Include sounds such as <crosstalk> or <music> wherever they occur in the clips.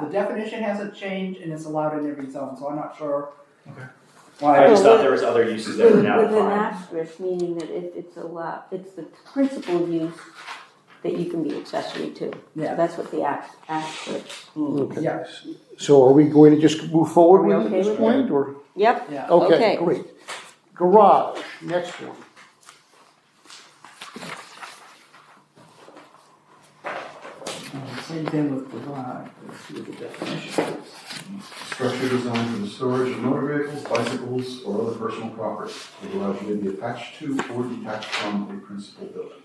the definition hasn't changed and it's allowed in every zone, so I'm not sure. Okay. I Why, just thought there was other uses that were now With an defined. asterisk, meaning that if it's a lot, it's the principal use that you can be accessory to. So Yeah. that's what the ax- asterisk means. Okay. yeah, So are we going to just move forward Are we with it at okay this with point, or? Yep, yeah. Oh. Okay, Okay. great. Garage, next one. Uh, Same thing with garage, let's see what the definition is. Structure designed for the storage of motor vehicles, bicycles, or other personal property. The garage may be attached to or detached from a principal building.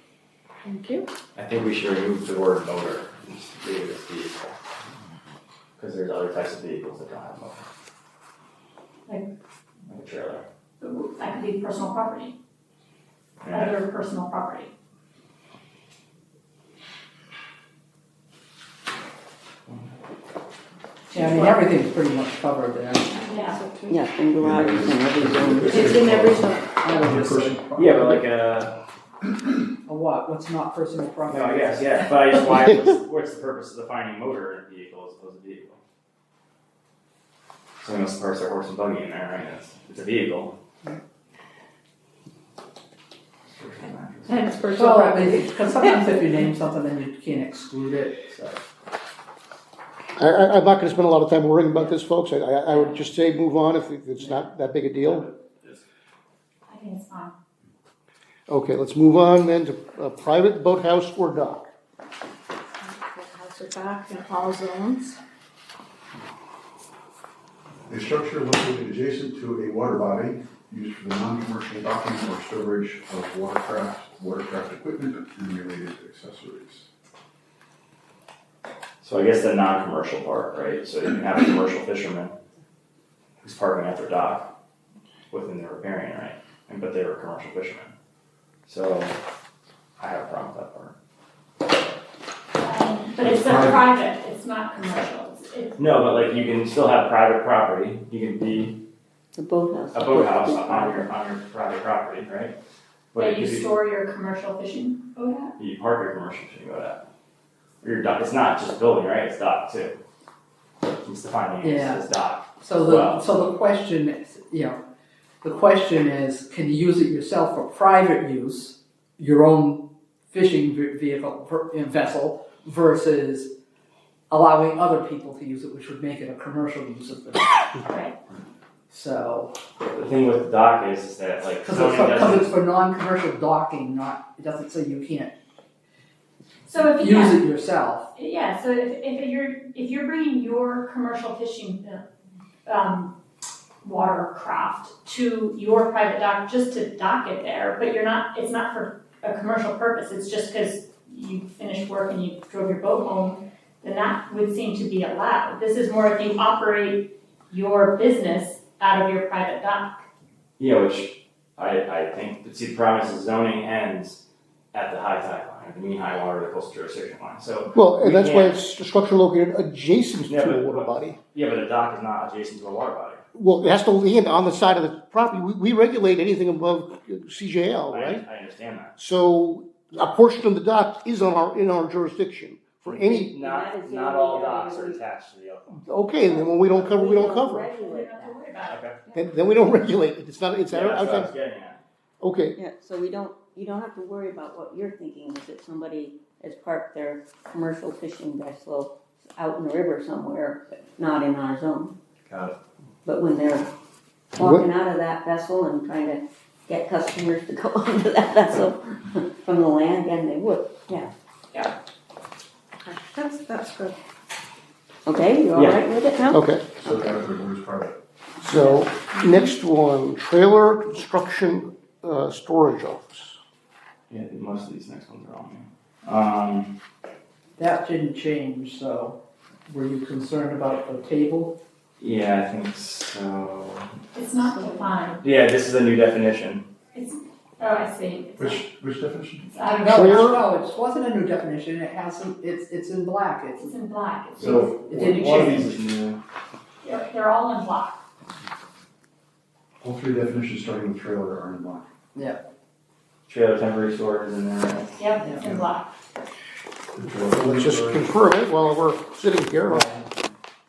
Thank you. I think we should remove the word motor, and just leave it as vehicle. Cause there's other types of vehicles that don't have motor. Like? Like a trailer. That could be personal property, Yeah. other personal property. Yeah, I mean, everything's pretty much covered there. Yeah. yeah, and garage is in every zone. It's in every zone. I would just say- Yeah, but like a, A what, what's not personal property? no, I guess, yeah, but I just, why, what's, what's the purpose of defining motor in a vehicle as opposed to vehicle? Someone else parks their horse and buggy in there, right, it's, it's a vehicle. And it's Well, personal property. because sometimes if you name something, then you can't exclude it, so. I, I, I'm not gonna spend a lot of time worrying about this, folks. I, I I would just say move on if it's not that big a deal. I think it's fine. Okay, let's move on then to a private boathouse or dock. House or back in all zones. A structure located adjacent to a water body used for the non-commercial docking or storage of watercraft, watercraft equipment, and related accessories. So I guess the non-commercial part, right, so you can have a commercial fisherman who's parking at their dock within their riparian, right, and but they were a commercial fishermen. So I have a problem with that part. Um, But it's a private, it's not commercial, it's, it's, No, but like you can still have private property, you can be The boathouse. a boathouse uh-huh. on your, on your private property, right? But where it you could be- store your commercial fishing boat at. you park your commercial fishing boat at. Or your dock, it's not just building, right, it's dock too. It's defining it as as dock, So Wow. the, so the question is, you know, the question is, can you use it yourself for private use, your own fishing ve- vehicle, ver- vessel, versus allowing other people to use it, which would make it a commercial use of the, Right. so. the thing with dock is, is that like Cause zoning it's for, doesn't. cause it's for non-commercial docking, not, it doesn't say you can't So if you, use yeah, it yourself. yeah, so if, if you're, if you're bringing your commercial fishing, uh, um, watercraft to your private dock, just to dock it there, but you're not, it's not for a commercial purpose, it's just because you finished work and you drove your boat home, then that would seem to be allowed. This is more if you operate your business out of your private dock. Yeah, which I, I think, but see, the problem is the zoning ends at the high tide line, the mean high water, the coastal jurisdiction line, so, Well, and that's why Yeah. it's a structure located adjacent Yeah, to a but- water body. yeah, but a dock is not adjacent to a water body. Well, it has to land on the side of the property. We, we regulate anything above CJL, I- Oh, right? I understand that. So a portion of the dock is on our, in our jurisdiction for any, That Not, is not the all only docks are area we- attached to the other one. okay, and then when we don't cover, we don't cover. You regulate don't have that. to worry about it. Okay. Then, then we don't <laughs> regulate it. It's not, it's Yeah, out- that's what I outside. was getting at. Okay, Yeah, so we don't, you don't have to worry about what you're thinking, is that somebody has parked their commercial fishing vessel out in the river somewhere, but not in our zone. Got But when they're walking out of that vessel and trying to get customers to <laughs> go onto that vessel from the land, then they would, yeah. Yeah. That's, that's good. Okay, you all Yeah. right with it now? okay. So that the word is private. So, next one, trailer construction, uh, storage office. Yeah, most of these next ones are on here. Um, That didn't change, so were you concerned about the table? yeah, I think so. It's not defined. Yeah, this is a new definition. Oh, I see. It's Which, which definition? It's out of- No, Trailer? no, it wasn't a new definition, it hasn't, it's, it's in black, it's, It's in black. It's- So, It didn't one of these is new. They're, they're all in black. All three definitions starting with trailer are in line. Trailer temporary storage is in there, right? Yep, it's in black. The trailer- Let's just confirm it while we're sitting here. Um,